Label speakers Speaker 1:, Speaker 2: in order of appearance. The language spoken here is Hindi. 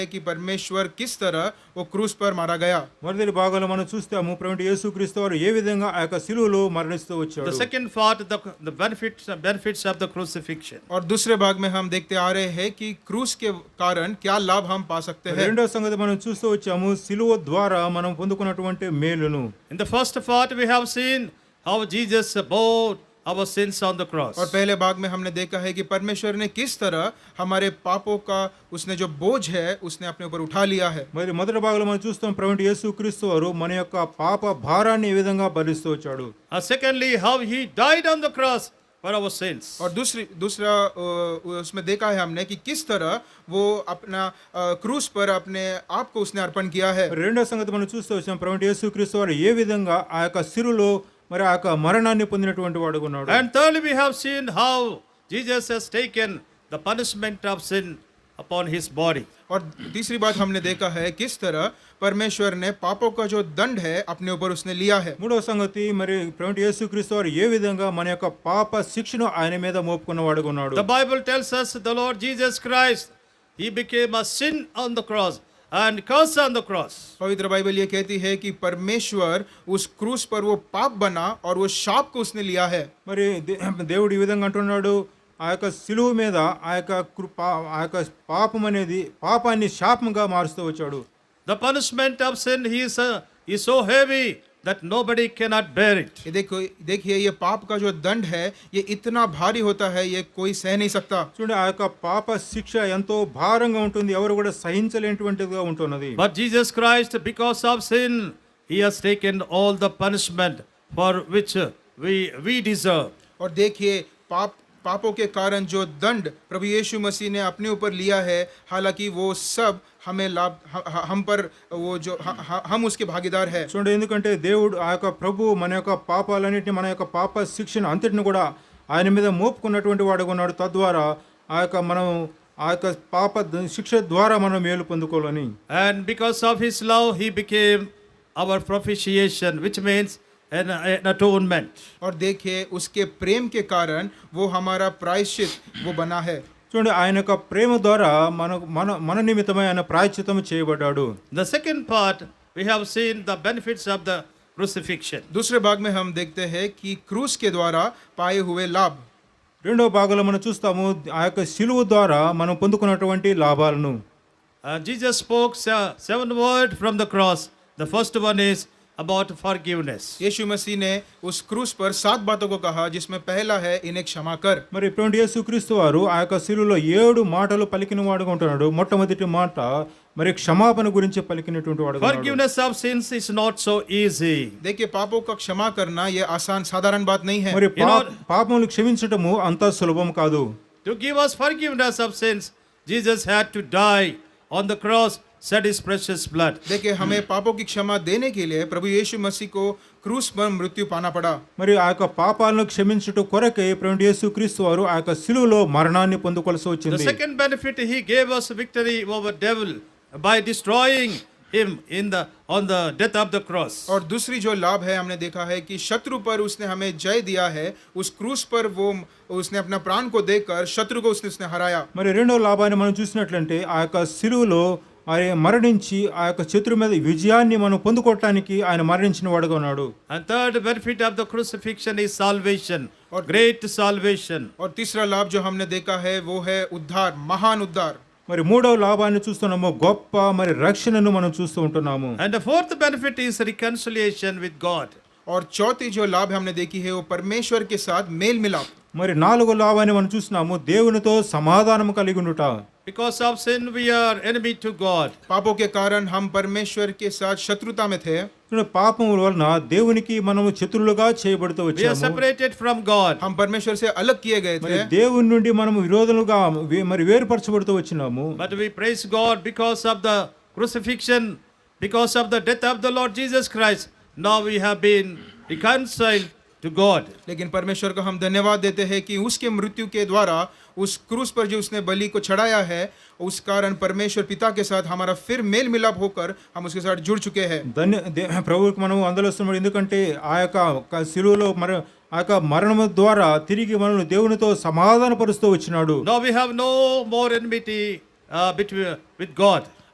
Speaker 1: है कि परमेश्वर किस तरह वो क्रूस पर मारा गया
Speaker 2: మొదటి భాగంలో మనం చూస్తాము ప్రభుత్వ యేసుక్రీస్తు వారు ఏ విధంగా ఆ యొక్క శిలువలో మరణిస్తూ
Speaker 3: The
Speaker 2: వచ్చాడు
Speaker 3: second part, the, the benefits, benefits of the crucifixion.
Speaker 1: और दूसरे भाग में हम देखते आ रहे हैं कि क्रूस के कारण क्या लाभ हम पा सकते हैं
Speaker 2: రెండో సంగతి మనం చూస్తూ వచ్చాము శిలువ ద్వారా మనం పొందుకున్నటువంటి మేలును
Speaker 3: In the first part, we have seen how Jesus bore our sins on the cross.
Speaker 1: और पहले भाग में हमने देखा है कि परमेश्वर ने किस तरह हमारे पापों का उसने जो बोझ है उसने अपने ऊपर उठा लिया है
Speaker 2: మరి మొదటి భాగంలో మనం చూస్తాం ప్రభుత్వ యేసుక్రీస్తు వారు మన యొక్క పాప భారాన్ని ఏ విధంగా భరిస్తూ వచ్చాడు
Speaker 3: And secondly, how he died on the cross for our sins.
Speaker 1: और दूसरी दूसरा अ, उसमें देखा है हमने कि किस तरह वो अपना अ, क्रूस पर अपने आप को उसने अर्पण किया है
Speaker 2: మరి రెండో సంగతి మనం చూస్తూ వచ్చాం ప్రభుత్వ యేసుక్రీస్తు వారు ఏ విధంగా ఆ యొక్క శిలువలో మరి ఆ యొక్క మరణాన్ని పొందినటువంటి వాడు ఉన్నాడు
Speaker 3: And thirdly, we have seen how Jesus has taken the punishment of sin upon his body.
Speaker 1: और तीसरी बात हमने देखा है किस तरह परमेश्वर ने पापों का जो दंड है अपने ऊपर उसने लिया है
Speaker 2: మూడో సంగతి మరి ప్రభుత్వ యేసుక్రీస్తు వారు ఏ విధంగా మన యొక్క పాప శిక్షను ఆయన మీద మోపుకున్న వాడుగా ఉన్నాడు
Speaker 3: The Bible tells us the Lord Jesus Christ, he became a sin on the cross and curse on the cross.
Speaker 1: पवित्र बाइबल ये कहती है कि परमेश्वर उस क्रूस पर वो पाप बना और वो शाप को उसने लिया है
Speaker 2: మరి దే- దేవుడు ఈ విధంగా అంటున్నాడు ఆ యొక్క సిలువ మీద ఆ యొక్క కృప ఆ యొక్క పాపం అనేది పాపాన్ని శాపంగా మారుస్తూ వచ్చాడు
Speaker 3: The punishment of sin is, uh, is so heavy that nobody cannot bear it.
Speaker 1: ये देखो देखिए ये पाप का जो दंड है ये इतना भारी होता है ये कोई सह नहीं सकता
Speaker 2: చూడండి ఆ యొక్క పాప శిక్ష ఎంతో భారంగా ఉంటుంది ఎవరు కూడా సహించలేనటువంటిదిగా ఉంటున్నది
Speaker 3: But Jesus Christ, because of sin, he has taken all the punishment for which uh, we, we deserve.
Speaker 1: और देखिए पाप पापों के कारण जो दंड प्रभु यीशु मसीह ने अपने ऊपर लिया है हालांकि वो सब हमें लाभ ह- हम पर वो जो ह- हम उसके भागीदार है
Speaker 2: చూడండి ఎందుకంటే దేవుడు ఆ యొక్క ప్రభు మన యొక్క పాపాలన్నింటినీ మన యొక్క పాప శిక్షను అంతటిని కూడా ఆయన మీద మోపుకున్నటువంటి వాడుగా ఉన్నాడు తద్వారా ఆ యొక్క మనం ఆ యొక్క పాప ద- శిక్ష ద్వారా మనం మేలు పొందుకోవాలని
Speaker 3: And because of his love, he became our propitiation, which means an, an atonement.
Speaker 1: और देखिए उसके प्रेम के कारण वो हमारा प्रायश्चित वो बना है
Speaker 2: చూడండి ఆయన యొక్క ప్రేమ ద్వారా మన మన మన నిమిత్తమై ఆయన ప్రాయశ్చితం చేయబడ్డాడు
Speaker 3: The second part, we have seen the benefits of the crucifixion.
Speaker 1: दूसरे भाग में हम देखते हैं कि क्रूस के द्वारा पाए हुए लाभ
Speaker 2: రెండో భాగంలో మనం చూస్తాము ఆ యొక్క శిలువు ద్వారా మనం పొందుకున్నటువంటి లాభాలను
Speaker 3: Uh, Jesus spoke se- seven words from the cross. The first one is about forgiveness.
Speaker 1: यीशु मसीह ने उस क्रूस पर सात बातों को कहा जिसमें पहला है इन्हें क्षमा कर
Speaker 2: మరి ఇటువంటి యేసుక్రీస్తు వారు ఆ యొక్క శిలువలో ఏడు మాటలు పలికిన వాడుగా ఉంటున్నాడు మొట్టమొదటి మాట మరి క్షమాపణ గురించి పలికినటువంటి వాడు
Speaker 3: Forgiveness of sins is not so easy.
Speaker 1: देखिए पापों का क्षमा करना यह आसान साधारण बात नहीं है
Speaker 2: మరి
Speaker 3: You know-
Speaker 2: పా- పాపములు క్షమించటము అంత సులభం కాదు
Speaker 3: To give us forgiveness of sins, Jesus had to die on the cross, shed his precious blood.
Speaker 1: देखिए हमें पापों की क्षमा देने के लिए प्रभु यीशु मसीह को क्रूस पर मृत्यु पाना पड़ा
Speaker 2: మరి ఆ యొక్క పాపాలను క్షమించుట కొరకే ఇటువంటి యేసుక్రీస్తు వారు ఆ యొక్క శిలువలో మరణాన్ని పొందుకోవాల్సి
Speaker 3: The
Speaker 2: వచ్చింది
Speaker 3: second benefit he gave us victory over devil by destroying him in the on the death of the cross.
Speaker 1: और दूसरी जो लाभ है हमने देखा है कि शत्रु पर उसने हमें जय दिया है उस क्रूस पर वो उसने अपना प्राण को देकर शत्रु को उसने उसने हराया
Speaker 2: మరి రెండో లాభాన్ని మనం చూసినట్లంటే ఆ యొక్క శిలువలో ఆయన మరణించి ఆ యొక్క శత్రు మీద విజయాన్ని మనం పొందుకోవటానికి ఆయన మరణించిన వాడుగా ఉన్నాడు
Speaker 3: And third benefit of the crucifixion is salvation,
Speaker 1: Or-
Speaker 3: great salvation.
Speaker 1: और तीसरा लाभ जो हमने देखा है वो है उद्धार महान उद्धार
Speaker 2: మరి మూడవ లాభాన్ని చూస్తున్నాము గొప్ప మరి రక్షణను మనం చూస్తూ ఉంటున్నాము
Speaker 3: And the fourth benefit is reconciliation with God.
Speaker 1: और चौथी जो लाभ हमने देखी है वो परमेश्वर के साथ मेल मिलाप
Speaker 2: మరి నాలుగో లాభాన్ని మనం చూస్తున్నాము దేవునితో సమాధానం కలిగి ఉండుట
Speaker 3: Because of sin, we are enemy to God.
Speaker 1: पापों के कारण हम परमेश्वर के साथ शत्रुता में थे
Speaker 2: చూడండి, పాపం వలన దేవునికి మనము శత్రులుగా చేయబడుతూ
Speaker 3: We are
Speaker 2: వచ్చాము
Speaker 3: separated from God.
Speaker 1: हम परमेश्वर से अलग किए गए
Speaker 2: మరి
Speaker 1: थे
Speaker 2: దేవుని నుండి మనము విరోధులుగా వే- మరి వేరుపరచబడుతూ వచ్చినాము
Speaker 3: But we praise God because of the crucifixion, because of the death of the Lord Jesus Christ. Now we have been reconciled to God.
Speaker 1: लेकिन परमेश्वर को हम धन्यवाद देते हैं कि उसके मृत्यु के द्वारा उस क्रूस पर जो उसने बलि को चढ़ाया है उस कारण परमेश्वर पिता के साथ हमारा फिर मेल मिलाप होकर हम उसके साथ जुड़ चुके हैं
Speaker 2: ధన్య దే- ప్రభువుకి మనము అందలుస్తున్నాం ఎందుకంటే ఆ యొక్క క- శిలువలో మరి ఆ యొక్క మరణము ద్వారా తిరిగి మనల్ని దేవునితో సమాధానపరుస్తూ వచ్చినాడు
Speaker 3: Now we have no more enmity uh, between, with God.